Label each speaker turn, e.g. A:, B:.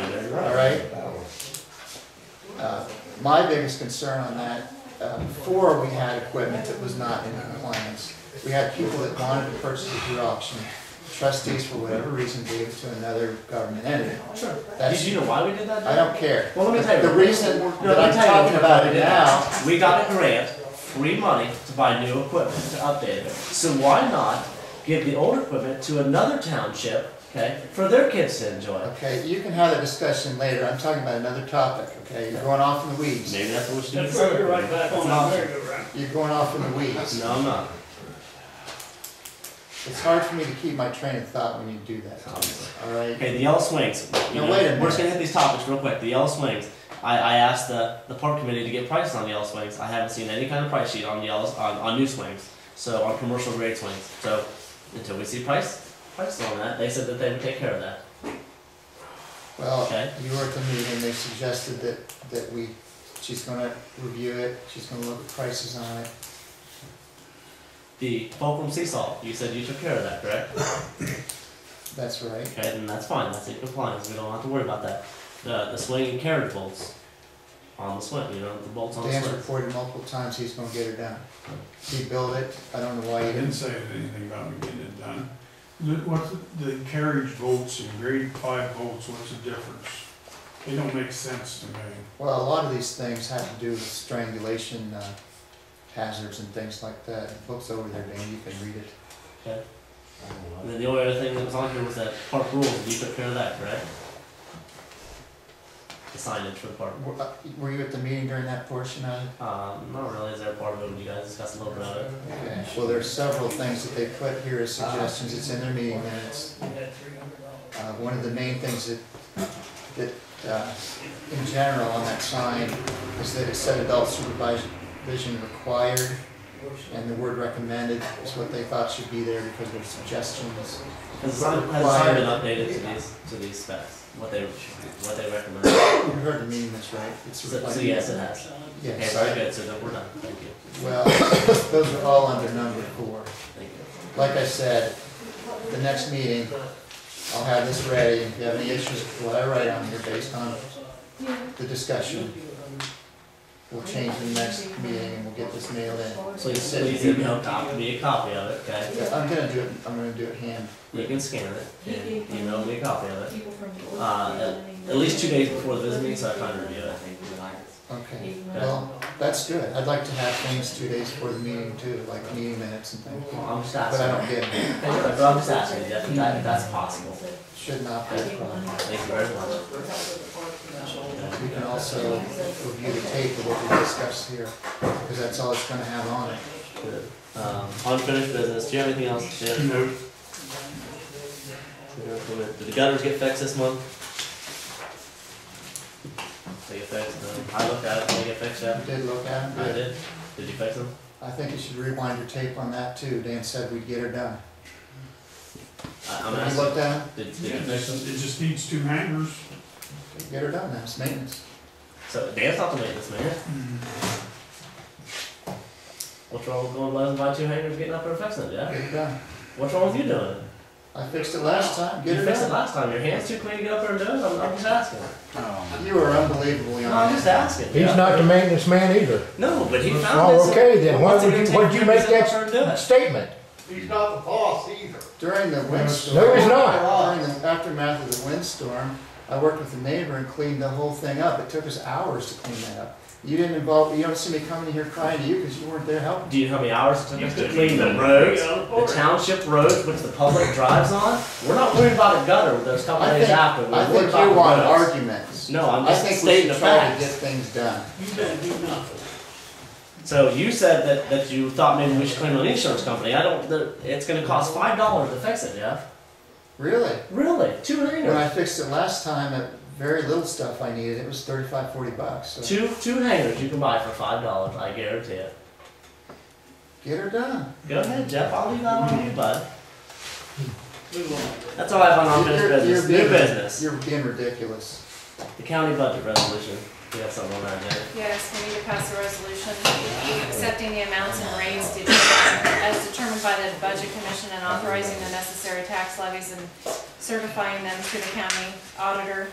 A: all right? Uh, My biggest concern on that, uh, before we had equipment that was not in compliance, we had people that wanted to purchase it through auction. Trustees, for whatever reason, gave it to another government entity.
B: Did
A: That's,
B: you know why we did that?
A: I don't care.
B: Well, let me tell you.
A: The reason
B: No,
A: that
B: let
A: I'm
B: me tell you
A: talking about
B: why
A: it
B: we did
A: now,
B: that. We got a grant, free money to buy new equipment, to update it. So why not give the old equipment to another township, okay, for their kids to enjoy?
A: okay, you can have that discussion later, I'm talking about another topic, okay? You're going off in the weeds.
B: Maybe that's what we should do.
C: That's where we're right back on that merry-go-round.
A: You're going off in the weeds.
B: No, I'm not.
A: It's hard for me to keep my train of thought when you do that, Tom, all right?
B: Okay, the yellow swings. You
A: Now,
B: know,
A: wait a minute.
B: We're just gonna hit these topics real quick. The yellow swings. I, I asked the, the park committee to get prices on the yellow swings. I haven't seen any kind of price sheet on the yellows on, on new swings. So on commercial grade swings. So until we see price prices on that, they said that they would take care of that.
A: Well,
B: Okay.
A: you were at the meeting, they suggested that, that we, she's gonna review it, she's gonna look at prices on it.
B: The fulcrum seesaw. You said you took care of that, correct?
A: That's right.
B: Okay, then that's fine. That's in compliance. We don't have to worry about that. The the swing and carriage bolts on the swing. You know the bolts on the
A: Dan's
B: swing.
A: reported multiple times he's gonna get her done. He built it, I don't know why he
D: I didn't
A: didn't.
D: say anything about getting it done. The, what's the- the carriage volts and grade five volts, what's the difference? They don't make sense to me.
A: Well, a lot of these things have to do with strangulation uh, hazards and things like that. The book's over there, Dan, you can read it.
B: And then the only other thing that was on here was that park rules, and you took care of that, correct? The signage for the park.
A: Were- uh, Were you at the meeting during that portion of it?
B: Um, not really, is there a part of it, when you guys discussed a little bit of it?
A: Okay. Well, there's several things that they put here as suggestions, it's in their meeting minutes.
C: We had three hundred dollars.
A: Uh, one of the main things that, that, uh, in general on that sign is that it said adult supervision required, and the word recommended is what they thought should be there because their suggestions.
B: Has the sign, has the sign been updated to these, to these specs, what they, what they recommend?
A: You heard the meaning, that's right? It's
B: So, so
A: like-
B: yes, it has. Okay,
A: Yes,
B: very
A: I-
B: good, so then we're done, thank you,
A: well, those are all under number four.
B: thank you.
A: Like I said, the next meeting, I'll have this ready, if you have any issues with what I write on here based on the discussion, we'll change the next meeting and we'll get this nailed in.
B: Please, please email cop, me a copy of it, okay?
A: Yeah, I'm gonna do it, I'm gonna do it hand.
B: You can scan it, and email me a copy of it.
E: Uh, at, at least two days before the visit meeting, so I kind of review it.
A: Okay, well, that's good. I'd like to have things two days before the meeting too, like meeting minutes and things.
B: I'm just
A: But I don't
B: asking,
A: get it.
B: Thank you, but I'm just asking, Jeff, if that, if that's possible.
A: Should not be a problem.
B: Thank you very much.
A: We can also review the tape of what we discussed here, because that's all it's gonna have on it.
B: Um, unfinished business, do you have anything else, Jim?
D: No,
B: Did the gutters get fixed this month? They get fixed, no. I looked at it, did they get fixed
A: You
B: yet?
A: did look at it,
B: I
A: but
B: did. Did you fix them?
A: I think you should rewind your tape on that too. Dan said we'd get her done.
B: I, I'm
A: Have you
B: asking,
A: looked at
B: did, did you
D: it
B: fix them?
D: just, it just needs two hangers.
A: it? Get her done, that's maintenance.
B: So, Dan's not the maintenance man. What's wrong with going to and buy two hangers, getting up there and fixing it,
A: Get
B: Jeff?
A: it done.
B: What's wrong with you doing it?
A: I fixed it last time,
B: You
A: get it
B: fixed it
A: done.
B: last time, your hand's too clean to get up there and do it, I'm, I'm just asking.
A: You are unbelievably
B: No,
A: on
B: I'm just asking.
F: He's
B: Jeff.
F: not the maintenance man either.
B: No, but he found this.
F: Oh, okay, then, why
B: What's it
F: would
B: gonna
F: you,
B: take
F: why'd you
B: to
F: make
B: get up there and do it?
F: that statement?
G: He's not the boss either.
A: During the windstorm.
F: No, he's not.
A: During the aftermath of the windstorm, I worked with a neighbor and cleaned the whole thing up. It took us hours to clean that up. You didn't involve, you don't see me coming in here crying to you because you weren't there helping.
B: Do you know how many hours it took
C: You
B: us to
C: could
B: clean
C: leave
B: the
C: it.
B: roads,
C: Yeah, of
B: the
C: course.
B: township roads, which the public drives on? We're not worried about a gutter with those couple
A: I
B: days
A: think,
B: after. We're
A: I
B: worried
A: think
B: about
A: you
B: the
A: want
B: roads.
A: arguments.
B: No, I'm
A: I
B: just
A: think we
B: stating
A: should
B: the
A: try to
B: facts.
A: get things done.
C: You didn't do nothing.
B: So you said that, that you thought maybe we should claim an insurance company. I don't. The, it's going to cost five dollars to fix it, Jeff.
A: Really?
B: Really? Two
A: When
B: hangers.
A: I fixed it last time, it, very little stuff I needed. It was thirty-five, forty bucks. So
B: Two two hangers you can buy for five dollars. I guarantee it.
A: get her done.
B: Go ahead, Jeff. I'll leave that on you, bud.
C: Move on.
B: That's all I have on unfinished
A: You're- you're
B: business. New
A: being-
B: business.
A: You're being ridiculous.
B: The county budget resolution. We have something on that, Janet.
E: Yes, we need to pass a resolution accepting the amounts and rates de- as determined by the Budget Commission and authorizing the necessary tax levies and certifying them to the county auditor